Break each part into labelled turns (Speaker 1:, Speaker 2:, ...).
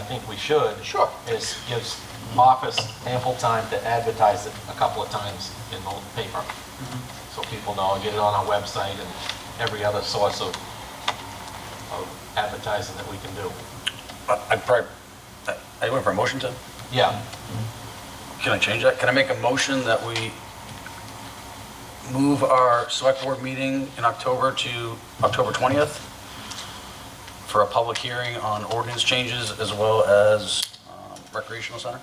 Speaker 1: think we should.
Speaker 2: Sure.
Speaker 1: Is gives office ample time to advertise it a couple of times in the paper.
Speaker 3: Mm-hmm.
Speaker 1: So people know, and get it on our website and every other source of, of advertising that we can do.
Speaker 3: I I probably, I- I went for a motion to,
Speaker 1: Yeah,
Speaker 3: can I change that? Can I make a motion that we move our select board meeting in October to October 20th for a public hearing on ordinance changes as well as um, recreational center?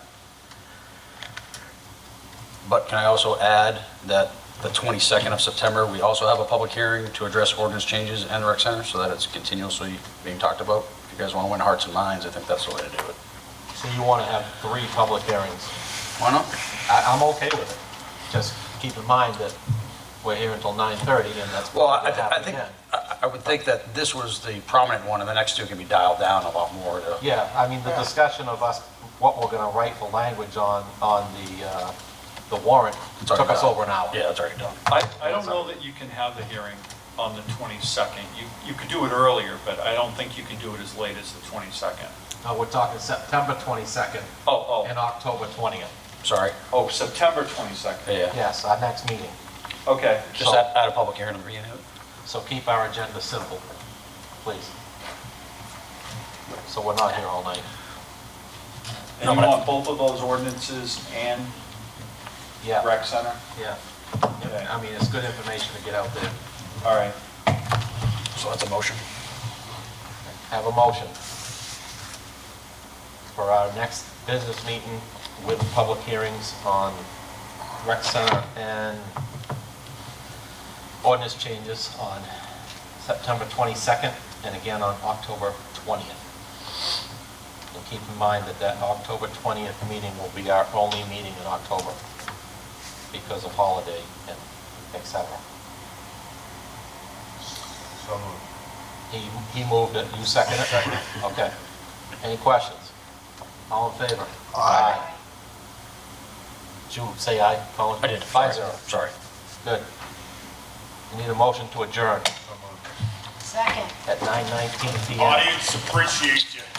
Speaker 3: But can I also add that the 22nd of September, we also have a public hearing to address ordinance changes and rec center so that it's continuously being talked about? If you guys want to win hearts and minds, I think that's the way to do it.
Speaker 1: so you want to have three public hearings.
Speaker 3: Why not?
Speaker 1: I, I'm okay with it. Just keep in mind that we're here until 9:30 and that's.
Speaker 3: Well, I,
Speaker 1: probably gonna
Speaker 3: I
Speaker 1: happen
Speaker 3: think,
Speaker 1: again.
Speaker 3: I I would think that this was the prominent one, and the next two can be dialed down a lot more to.
Speaker 1: Yeah, I mean, the discussion of us, what we're gonna write for language on, on the, uh, the warrant
Speaker 3: It's already
Speaker 1: took us
Speaker 3: done.
Speaker 1: over an hour.
Speaker 3: Yeah, it's already done.
Speaker 4: I, I don't know that you can have the hearing on the 22nd. You, you could do it earlier, but I don't think you can do it as late as the 22nd.
Speaker 1: No, Uh, we're talking September 22nd
Speaker 4: Oh,
Speaker 1: and
Speaker 4: oh,
Speaker 1: October 20th.
Speaker 3: Sorry,
Speaker 4: oh, September 22nd.
Speaker 3: yeah.
Speaker 1: Yes, our next meeting.
Speaker 4: Okay.
Speaker 3: Just add, add a public hearing at the beginning of it.
Speaker 1: So keep our agenda simple, please. So we're not here all night.
Speaker 4: And you want both of those ordinances and
Speaker 1: Yeah,
Speaker 4: rec center?
Speaker 1: yeah. I mean, it's good information to get out there.
Speaker 4: All right.
Speaker 3: So that's a motion.
Speaker 1: Have a motion for our next business meeting with public hearings on rec center and ordinance changes on September 22nd and again on October 20th. And keep in mind that that October 20th meeting will be our only meeting in October because of holiday and et cetera.
Speaker 5: So moved.
Speaker 1: He, he moved it, you second it? Okay. Any questions? All in favor? Aye. Did you say aye, Colin?
Speaker 3: I did.
Speaker 1: Five zero,
Speaker 3: Sorry.
Speaker 1: good. You need a motion to adjourn
Speaker 5: So moved.
Speaker 6: Second.
Speaker 1: at 9:19 PM.
Speaker 5: Audience appreciate you.